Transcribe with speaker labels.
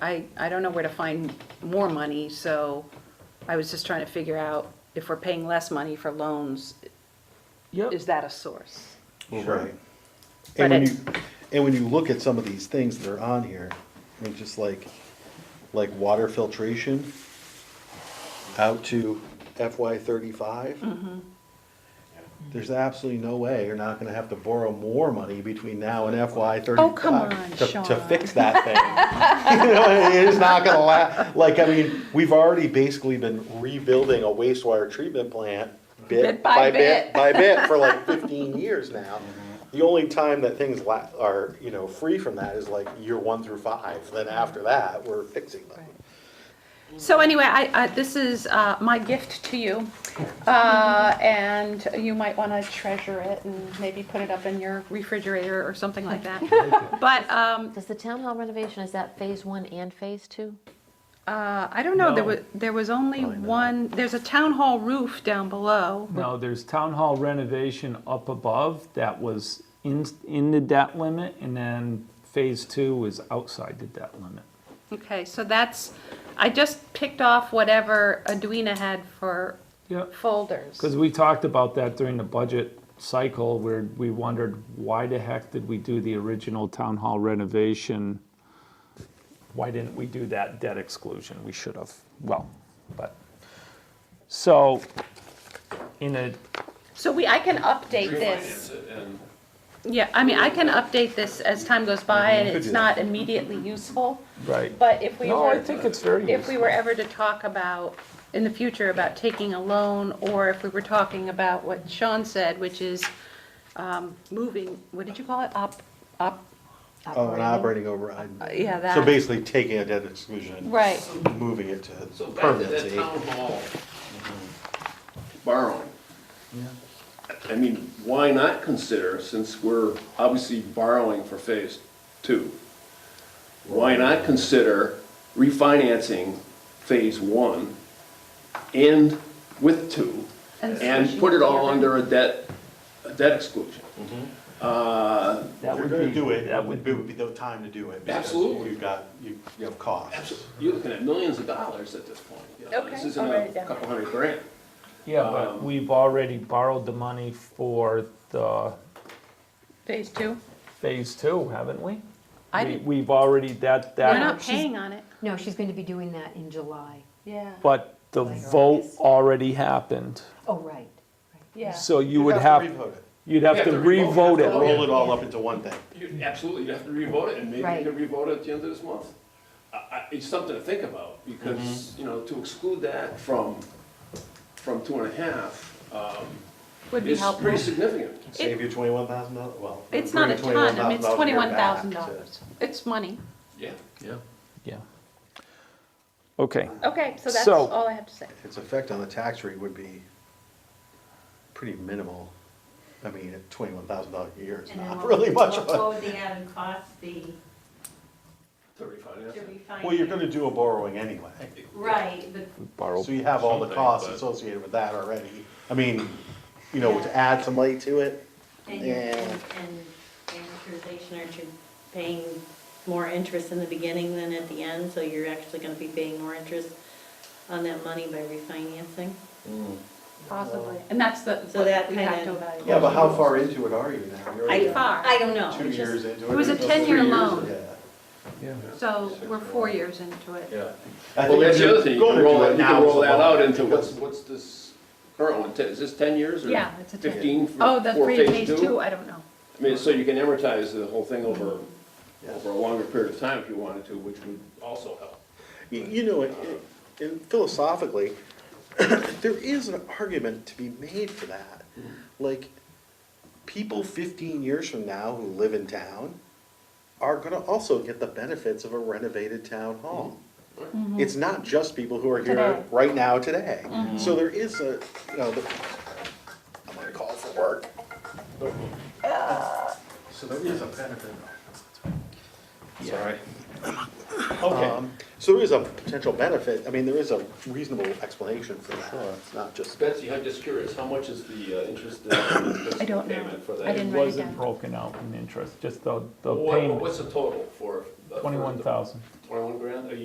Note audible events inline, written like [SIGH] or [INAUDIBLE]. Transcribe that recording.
Speaker 1: I, I don't know where to find more money, so I was just trying to figure out if we're paying less money for loans,
Speaker 2: Yep.
Speaker 1: is that a source?
Speaker 3: Sure.
Speaker 1: But
Speaker 3: And when
Speaker 1: it-
Speaker 3: you, and when you look at some of these things that are on here, I mean, just like, like water filtration out to FY
Speaker 1: Mm-hmm.
Speaker 3: thirty-five. There's absolutely no way you're not gonna have to borrow more money between now and FY thirty-five.
Speaker 1: Oh, come on,
Speaker 3: to- To
Speaker 1: Sean.
Speaker 3: fix that thing. [LAUGHS] You know, it is not gonna last, like, I mean, we've already basically been rebuilding a wastewater treatment plant bit
Speaker 1: Bit by
Speaker 3: by bit
Speaker 1: bit.
Speaker 3: by bit for like 15 years now. The only time that things la- are, you know, free from that is like year one through five. Then after that, we're fixing them.
Speaker 1: So anyway, I, I, this is, uh, my gift to you. Uh, and you might wanna treasure it and maybe put it up in your refrigerator or something like that. But, um,
Speaker 4: Does the town hall renovation, is that phase one and phase two?
Speaker 1: uh, I don't know, there
Speaker 2: No.
Speaker 1: was, there was only one, there's a town hall roof down below.
Speaker 2: No, there's town hall renovation up above that was in, in the debt limit, and then phase two was outside the debt limit.
Speaker 1: Okay, so that's, I just picked off whatever Edwina had for
Speaker 2: Yep.
Speaker 1: folders.
Speaker 2: Because we talked about that during the budget cycle, where we wondered, why the heck did we do the original town hall renovation? Why didn't we do that debt exclusion? We should have, well, but, so, in a,
Speaker 1: So we, I can update
Speaker 5: Refinance
Speaker 1: this.
Speaker 5: it and
Speaker 1: Yeah, I mean, I can update this as time goes by and
Speaker 3: could
Speaker 1: it's
Speaker 3: do
Speaker 1: not immediately useful.
Speaker 2: right.
Speaker 1: But if we
Speaker 2: No, I
Speaker 1: were,
Speaker 2: think it's very
Speaker 1: if we were
Speaker 2: useful.
Speaker 1: ever to talk about, in the future, about taking a loan, or if we were talking about what Sean said, which is um, moving, what did you call it? Up, up,
Speaker 3: Oh, and operating override.
Speaker 1: Uh, yeah, that.
Speaker 3: So basically taking a debt exclusion.
Speaker 1: Right.
Speaker 3: Moving it to
Speaker 5: so back to that
Speaker 3: permanency.
Speaker 5: town hall Mm-hmm. borrowing. I mean, why not consider, since we're obviously borrowing for phase two, why not consider refinancing phase one and with two
Speaker 1: And
Speaker 5: and
Speaker 1: switching
Speaker 5: put it all
Speaker 1: the other.
Speaker 5: under a debt, a debt exclusion? Uh,
Speaker 2: That would
Speaker 3: If you're gonna
Speaker 2: be-
Speaker 3: do it,
Speaker 2: That
Speaker 3: it
Speaker 2: would
Speaker 3: would
Speaker 2: be
Speaker 3: be the time to do it. because
Speaker 5: Absolutely.
Speaker 3: You've got, you you have costs.
Speaker 5: abso- You're looking at millions of dollars at this point. you know, This
Speaker 1: Okay,
Speaker 5: isn't
Speaker 1: I'll write it
Speaker 5: a
Speaker 1: down.
Speaker 5: couple hundred grand.
Speaker 2: Yeah, but we've already borrowed the money for the
Speaker 1: Phase two?
Speaker 2: phase two, haven't we?
Speaker 1: I
Speaker 2: We-
Speaker 1: didn't-
Speaker 2: We've already, that,
Speaker 1: We're
Speaker 2: that,
Speaker 1: not
Speaker 6: she's-
Speaker 1: paying on it.
Speaker 6: No, she's going to be doing that in July.
Speaker 1: Yeah.
Speaker 2: but the vote already happened.
Speaker 6: Oh, right.
Speaker 1: Yeah.
Speaker 2: So you would have,
Speaker 3: revote it.
Speaker 2: you'd have
Speaker 5: We have
Speaker 2: to
Speaker 5: to re-vote.
Speaker 2: revote
Speaker 5: Yeah.
Speaker 2: it.
Speaker 3: Roll it all up into one thing.
Speaker 5: You- Absolutely, you have to revote it, and maybe
Speaker 6: Right.
Speaker 5: you can revote it at the end of this month. I- I- It's something to think about, because, you know, to exclude that from, from two and a half um,
Speaker 1: Would be
Speaker 5: is
Speaker 1: helpful.
Speaker 5: pretty significant.
Speaker 3: Save you twenty-one thousand dollars, well.
Speaker 1: It's not a
Speaker 3: bring
Speaker 1: ton, I mean, it's
Speaker 3: $21,000
Speaker 1: twenty-one
Speaker 3: back to-
Speaker 1: thousand dollars. It's money.
Speaker 5: Yeah. Yeah.
Speaker 2: Yeah. Okay,
Speaker 1: Okay, so that's
Speaker 2: So-
Speaker 1: all I have to say.
Speaker 3: its effect on the tax rate would be pretty minimal. I mean, at twenty-one thousand dollars a year is
Speaker 7: And then
Speaker 3: not
Speaker 7: what-
Speaker 3: really much
Speaker 7: What
Speaker 3: of
Speaker 7: what
Speaker 3: a.
Speaker 7: would the added cost be
Speaker 5: To refinance
Speaker 7: to
Speaker 5: it.
Speaker 7: refinance?
Speaker 3: Well, you're gonna do a borrowing anyway,
Speaker 7: Right, but
Speaker 2: we borrow,
Speaker 3: so you have all the
Speaker 5: Something,
Speaker 3: costs
Speaker 5: but-
Speaker 3: associated with that already. I mean, you know, to add some light to it,
Speaker 7: and your,
Speaker 3: Yeah.
Speaker 7: and and amortization, aren't you paying more interest in the beginning than at the end? So you're actually gonna be paying more interest on that money by refinancing?
Speaker 1: Possibly. And that's the,
Speaker 7: So
Speaker 1: what
Speaker 7: that
Speaker 1: we have to
Speaker 7: kinda-
Speaker 1: evaluate.
Speaker 3: yeah, but how far into it are you now? You're already
Speaker 7: I, I don't know.
Speaker 3: Two
Speaker 7: It's just-
Speaker 3: years into it.
Speaker 1: It was a
Speaker 3: or so.
Speaker 1: 10-year
Speaker 3: Three years,
Speaker 1: loan.
Speaker 3: yeah.
Speaker 1: So we're four years into it.
Speaker 5: Yeah.
Speaker 3: I
Speaker 5: Well,
Speaker 3: think
Speaker 5: that's
Speaker 3: if
Speaker 5: the
Speaker 3: you're
Speaker 5: other thing, you can
Speaker 3: gonna
Speaker 5: roll,
Speaker 3: do
Speaker 5: that- you
Speaker 3: now
Speaker 5: can
Speaker 3: is
Speaker 5: roll
Speaker 3: the
Speaker 5: that
Speaker 3: law,
Speaker 5: out into
Speaker 3: because-
Speaker 5: what's, what's this current one, Ten- is this ten years or?
Speaker 1: Yeah, it's a 10.
Speaker 5: Fifteen for,
Speaker 1: Oh, the
Speaker 5: for
Speaker 1: three
Speaker 5: phase
Speaker 1: phase two,
Speaker 5: two?
Speaker 1: I don't know.
Speaker 5: I mean, so you can amortize the whole thing over,
Speaker 3: Yeah.
Speaker 5: over a longer period of time if you wanted to, which would also help.
Speaker 3: You you know, it- it- and philosophically, [COUGHS] there is an argument to be made for that. Like, people fifteen years from now who live in town are gonna also get the benefits of a renovated town hall. It's not just people who are
Speaker 1: Today.
Speaker 3: here right now today. So there is a, you know, the, I'm gonna call for work. So there is a benefit. Sorry. Okay. Um, So there is a potential benefit, I mean, there is a reasonable explanation for that, it's not just.
Speaker 5: Betsy, I'm just curious, how much is the uh, interest
Speaker 1: [COUGHS]
Speaker 5: uh, interest
Speaker 1: I don't know.
Speaker 5: payment for
Speaker 1: I
Speaker 5: that?
Speaker 1: didn't-
Speaker 2: it
Speaker 1: write it
Speaker 2: wasn't
Speaker 1: down.
Speaker 2: broken out in interest, just the, the
Speaker 5: What-
Speaker 2: payment.
Speaker 5: What's the total for for the-
Speaker 2: Twenty-one thousand.
Speaker 5: Twenty-one grand, a